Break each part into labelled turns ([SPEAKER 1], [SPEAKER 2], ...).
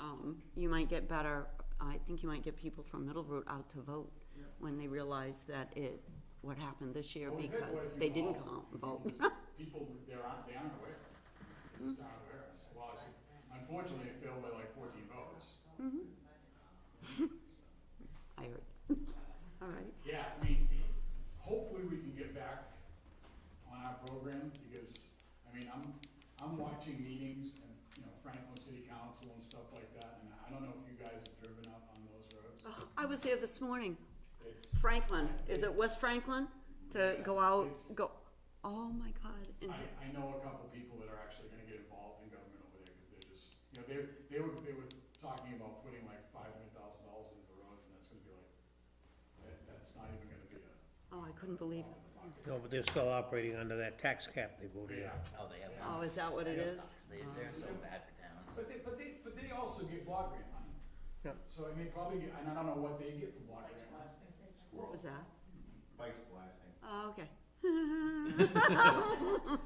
[SPEAKER 1] um, you might get better, I think you might get people from Middle Route out to vote when they realize that it, what happened this year
[SPEAKER 2] Well, we've had
[SPEAKER 1] because
[SPEAKER 2] quite a
[SPEAKER 1] they
[SPEAKER 2] few
[SPEAKER 1] didn't
[SPEAKER 2] calls.
[SPEAKER 1] come out and vote.
[SPEAKER 2] People, they're, they aren't aware, they're just not aware of this laws. Unfortunately, it failed by like fourteen votes.
[SPEAKER 1] I heard. All right.
[SPEAKER 2] Yeah, I mean, hopefully we can get back on our program, because, I mean, I'm, I'm watching meetings and, you know, Franklin City Council and stuff like that, and I don't know if you guys have driven up on those roads.
[SPEAKER 1] Oh, I was there this morning.
[SPEAKER 2] It's,
[SPEAKER 1] Franklin, is it West Franklin? To go out,
[SPEAKER 2] It's-
[SPEAKER 1] go, oh my God. and-
[SPEAKER 2] I, I know a couple people that are actually gonna get involved in government over there, cause they're just, you know, they, they were, they were talking about putting like five hundred thousand dollars into the roads, and that's gonna be like, that, that's not even gonna be a,
[SPEAKER 1] Oh, I couldn't believe
[SPEAKER 2] in
[SPEAKER 1] it.
[SPEAKER 2] the bucket.
[SPEAKER 3] No, but they're still operating under that tax cap they voted
[SPEAKER 2] Yeah.
[SPEAKER 3] on.
[SPEAKER 4] Oh, they have
[SPEAKER 1] Oh,
[SPEAKER 4] one.
[SPEAKER 1] is that what it
[SPEAKER 4] That
[SPEAKER 1] is?
[SPEAKER 4] sucks. They, they're so bad for towns.
[SPEAKER 2] But they, but they, but they also get block grant money.
[SPEAKER 3] Yeah.
[SPEAKER 2] So, and they probably get, and I don't know what they get from block grant money.
[SPEAKER 1] What was that?
[SPEAKER 5] Bike's blasting.
[SPEAKER 1] Oh, okay.
[SPEAKER 4] Thought the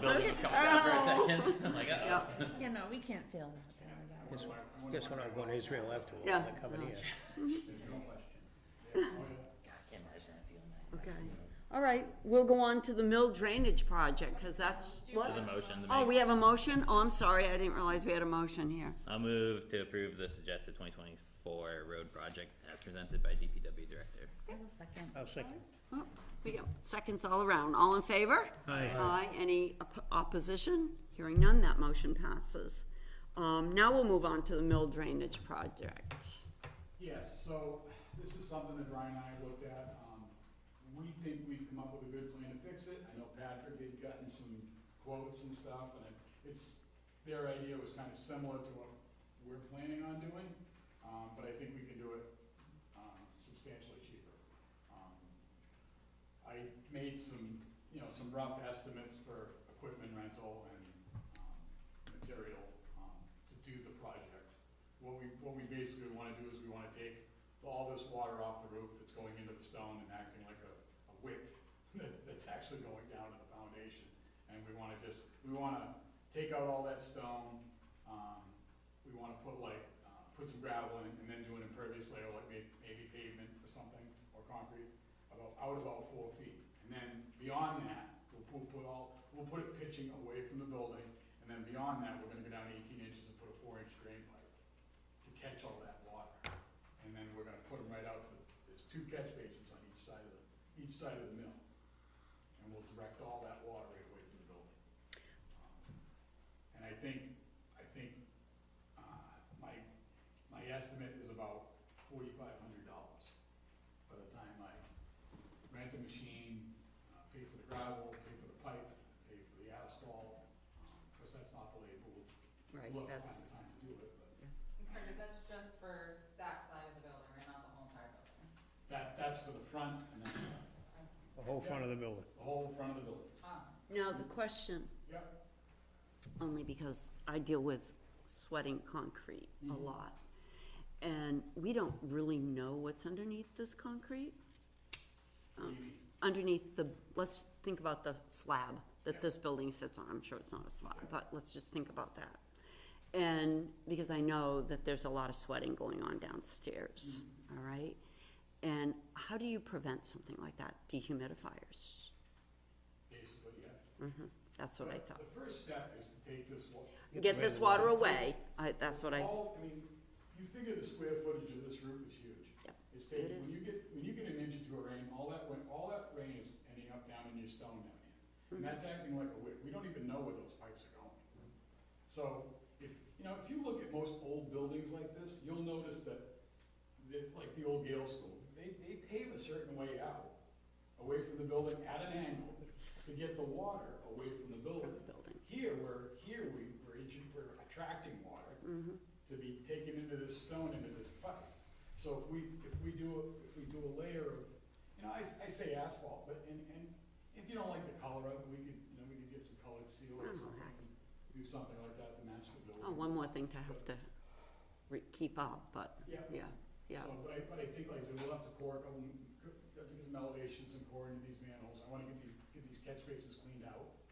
[SPEAKER 4] building was coming down for a second. I'm like, uh-oh.
[SPEAKER 1] Yeah,
[SPEAKER 6] Yeah, no, we can't feel that.
[SPEAKER 2] I wonder
[SPEAKER 3] Yes.
[SPEAKER 2] why- I wonder
[SPEAKER 3] Guess
[SPEAKER 2] why
[SPEAKER 3] we're not going to Israel after all,
[SPEAKER 1] Yeah.
[SPEAKER 3] they're coming here.
[SPEAKER 2] they- oh, yeah.
[SPEAKER 4] God, I can't imagine that feeling.
[SPEAKER 1] okay. All right, we'll go on to the mill drainage project, because that's,
[SPEAKER 4] There's a
[SPEAKER 1] what?
[SPEAKER 4] motion to
[SPEAKER 1] Oh,
[SPEAKER 4] make.
[SPEAKER 1] we have a motion? Oh, I'm sorry, I didn't realize we had a motion here.
[SPEAKER 4] I'll move to approve the suggested twenty twenty-four road project as presented by DPW Director.
[SPEAKER 6] Second.
[SPEAKER 3] I'll second.
[SPEAKER 1] Oh, We got seconds all around. All in favor?
[SPEAKER 3] Aye.
[SPEAKER 1] Aye. Any op- opposition? Hearing none, that motion passes. Um, now we'll move on to the mill drainage project.
[SPEAKER 2] Yes, so this is something that Brian and I looked at. Um, we think we've come up with a good plan to fix it. I know Patrick had gotten some quotes and stuff, and it- it's, their idea was kind of similar to what we're planning on doing, um, but I think we can do it, um, substantially cheaper. Um, I made some, you know, some rough estimates for equipment rental and, um, material, um, to do the project. What we, what we basically wanna do is we wanna take all this water off the roof that's going into the stone and acting like a, a wick that, that's actually going down to the foundation. And we wanna just, we wanna take out all that stone, um, we wanna put like, uh, put some gravel in and then do an impervious layer, like may, maybe pavement or something, or concrete, about, out about four feet. And then beyond that, we'll, we'll put all, we'll put it pitching away from the building, and then beyond that, we're gonna go down eighteen inches and put a four-inch drain pipe to catch all that water. And then we're gonna put them right out to, there's two catch basins on each side of the, each side of the mill. And we'll direct all that water right away from the building. Um, And I think, I think, uh, my, my estimate is about forty-five hundred dollars by the time I rent a machine, uh, pay for the gravel, pay for the pipe, pay for the asphalt. Um, Of course, that's not the labor, we'll
[SPEAKER 1] Right,
[SPEAKER 2] look, find
[SPEAKER 1] that's,
[SPEAKER 2] the time to do it, but
[SPEAKER 7] Perfect, that's just for that side of the building, right, not the whole entire building?
[SPEAKER 2] That, that's for the front and then
[SPEAKER 3] The whole front of the building.
[SPEAKER 2] the whole front of the building.
[SPEAKER 7] Oh.
[SPEAKER 1] now the question,
[SPEAKER 2] Yep.
[SPEAKER 1] only because I deal with sweating concrete a lot. And we don't really know what's underneath this concrete.
[SPEAKER 2] Maybe.
[SPEAKER 1] underneath the, let's think about the slab
[SPEAKER 2] Yeah.
[SPEAKER 1] that this building sits on, I'm sure it's not a slab, but let's just think about that. And, because I know that there's a lot of sweating going on downstairs, all right? And how do you prevent something like that, dehumidifiers?
[SPEAKER 2] Basically, yeah.
[SPEAKER 1] Mhm, That's what I
[SPEAKER 2] But
[SPEAKER 1] thought.
[SPEAKER 2] The first step is to take this wall.
[SPEAKER 1] Get this water away, I, that's what I, oh,
[SPEAKER 2] All, I mean, you figure the square footage of this roof is huge.
[SPEAKER 1] Yep,
[SPEAKER 2] It's taking,
[SPEAKER 1] it
[SPEAKER 2] when
[SPEAKER 1] is.
[SPEAKER 2] you get, when you get an inch into a rain, all that, when, all that rain is ending up down in your stone down here. And
[SPEAKER 1] Hmm.
[SPEAKER 2] that's acting like a wick. We don't even know where those pipes are going. So if, you know, if you look at most old buildings like this, you'll notice that, that, like the old Gale School, they, they pave a certain way out, away from the building at an angle, to get the water away from the building.
[SPEAKER 1] From the building.
[SPEAKER 2] Here, we're, here we, we're, intru- we're attracting water
[SPEAKER 1] Mm-hmm.
[SPEAKER 2] to be taken into this stone, into this pipe. So if we, if we do, a- if we do a layer of, you know, I, s- I say asphalt, but, and, and if you don't like the color of it, we could, you know, we could get some colored seal
[SPEAKER 1] I
[SPEAKER 2] or
[SPEAKER 1] don't know,
[SPEAKER 2] something.
[SPEAKER 1] hex.
[SPEAKER 2] Do something like that to match the building.
[SPEAKER 1] oh, one more thing to have to re- keep up, but,
[SPEAKER 2] Yeah.
[SPEAKER 1] yeah, yeah.
[SPEAKER 2] So, but I, but I think, like I said, we'll have to cork them, have to get some elevations and core into these manholes, I wanna get these, get these catch bases cleaned out. Um, Um,